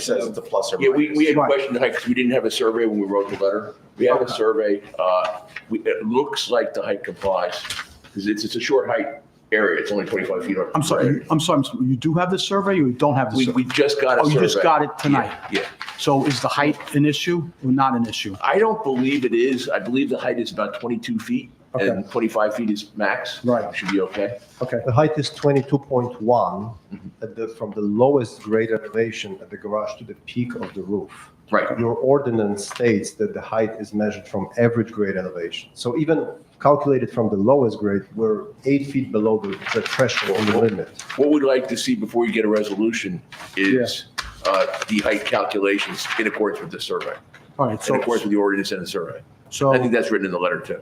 says it's a plus or Yeah, minus. we, we had Right. questioned the height because we didn't have a survey when we wrote the letter. We have a survey, uh, we, it looks like the height complies, because it's, it's a short height area, it's only twenty-five feet. up. I'm sorry, I'm sorry, I'm sorry, you do have the survey or you don't have the We, we survey? just got a Oh, survey. you just got it tonight? Yeah. So is the height an issue or not an issue? I don't believe it is, I believe the height is about twenty-two feet, and Okay. twenty-five feet is max. Right. Should be okay. Mm-hmm. Okay, the height is 22.1 at the, from the lowest grade elevation at the garage to the peak of the roof. Right. Your ordinance states that the height is measured from average grade elevation. So even calculated from the lowest grade, we're eight feet below the the threshold the limit. What we'd like to see before you get a resolution is, uh, the height calculations in accordance with the survey, All right, in so, accordance with the ordinance and the survey. so, I think that's written in the letter too.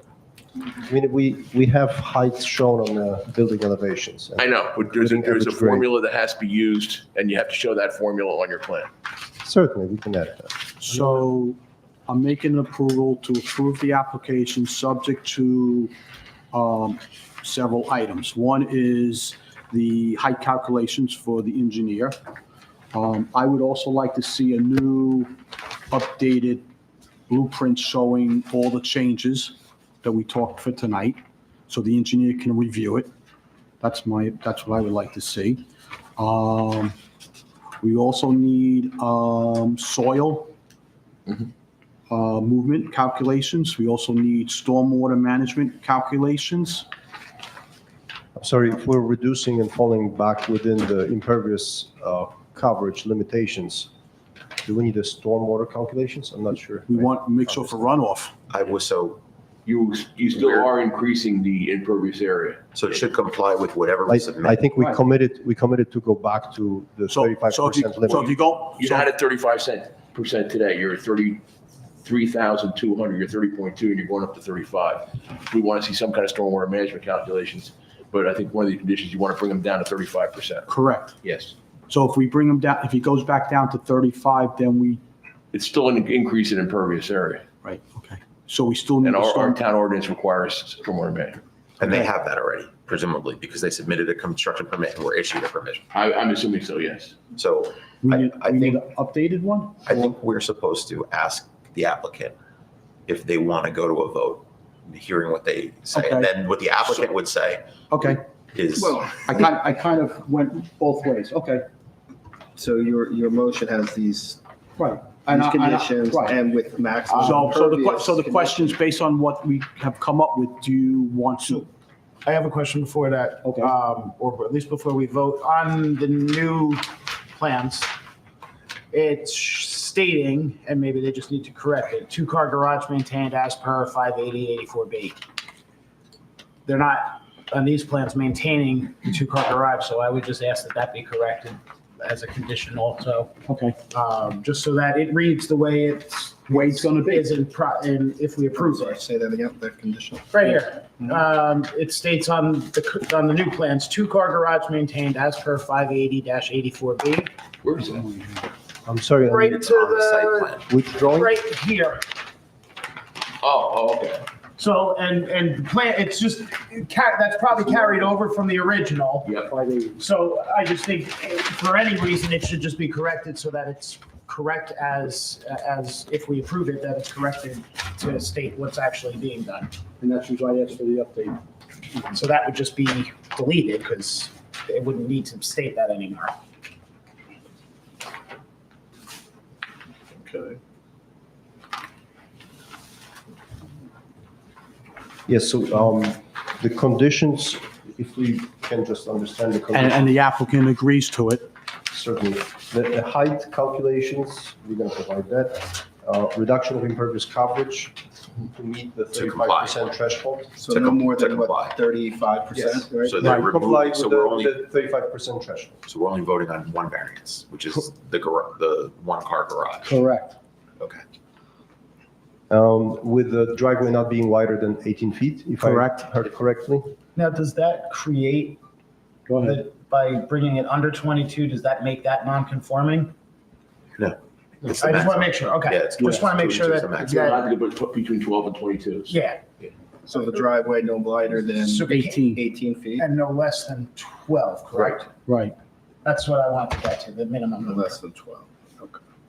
I mean, we, we have heights shown on the building elevations. I know, but there's, a- there's a Average grade. formula that has to be used, and you have to show that formula on your plan. Certainly, we can add that. so I'm making an approval to approve the application subject to um, several items. One is the height calculations for the engineer. Um, I would also like to see a new updated blueprint showing all the changes that we talked for tonight, so the engineer can review it. That's my, that's what I would like to see. Um, We also need um, soil uh, movement calculations. We also need stormwater management calculations. I'm sorry, if we're reducing and falling back within the impervious uh, coverage limitations, do we need a stormwater calculations? I'm not sure. We want to make sure for runoff. I was so, You, you still Where- are increasing the impervious area. so it should comply with whatever I, we submit. I think we Right. committed, we committed to go back to the So, thirty-five so if you, percent so if limit. you go, You're so- not at thirty-five cent, percent today, you're at thirty-three thousand two hundred, you're thirty point two, and you're going up to thirty-five. We want to see some kind of stormwater management calculations, but I think one of the conditions, you want to bring them down to thirty-five percent. correct. Yes. So if we bring him down, if he goes back down to 35, then we, It's still an increase in impervious area, right, okay. So we still need and a our, our storm. town ordinance requires stormwater management. And they have that already, presumably, because they submitted a construction permit and were issued a permit. I, I'm assuming so, yes. So We I- need, I we need think- an updated one? I think we're supposed to ask the applicant if they want to go to a vote, hearing what they say. And Okay. then what the applicant would say Okay, is, Well, I kind, I kind of went both ways, okay, so your, your motion has these, right. And these I- and I- conditions right. and with maximum. So, so the, que- impervious so the condition. question's based on what we have come up with, do you want to? I have a question before that. Okay. um, Or at least before we vote on the new plans. It's stating, and maybe they just need to correct it, two-car garage maintained as per 580-84B. They're not, on these plans, maintaining the two-car garage, so I would just ask that that be corrected as a condition also, Okay, um, just so that it reads the way it's, way it's gonna be. is in, pro- in if we approve it. Sorry, Say that again, that conditional. Right here. Um, it states on the, c- on the new plans, two-car garage maintained as per five eighty eighty-four B. Where is that? I'm sorry, Right on to it's on the site plan. the, which drawing? right here. Oh, oh, okay. So, and, and the plan, it's just, ca- that's probably carried over from the original. Yep. So I just think eh, for any reason, it should just be corrected so that it's correct as, as if we approve it, that it's corrected to state what's actually being done. And that's usually I asked for the update. So that would just be deleted because it wouldn't need to state that anymore. Okay. Yes, so, um, the conditions, if we can just understand the And, conditions, and the applicant agrees to it. certainly. The, the height calculations, we're gonna provide that. Uh, reduction of impervious coverage to meet the To comply. thirty-five percent threshold. So To no com- more to than what, comply. thirty-five percent, Yes. right? so Right, they're comply removing, with so we're only, the thirty-five percent threshold. so we're only voting on one variance, which is the gar, the one-car garage. Correct. Okay. Um, with the driveway not being wider than 18 feet, if I Correct. heard correctly. Now, does that create, Go ahead. the- by bringing it under 22, does that make that non-conforming? I It's just the want to maximum. make sure, Yeah, okay. it's Just want to 22 make sure is the that, maximum. You're that- allowed to go put- between twelve and twenty-two. yeah, So the driveway no wider than So- Eighteen, eighteen feet, and no less than 12, correct? right. That's what I wanted to get to, the minimum no number. less than twelve.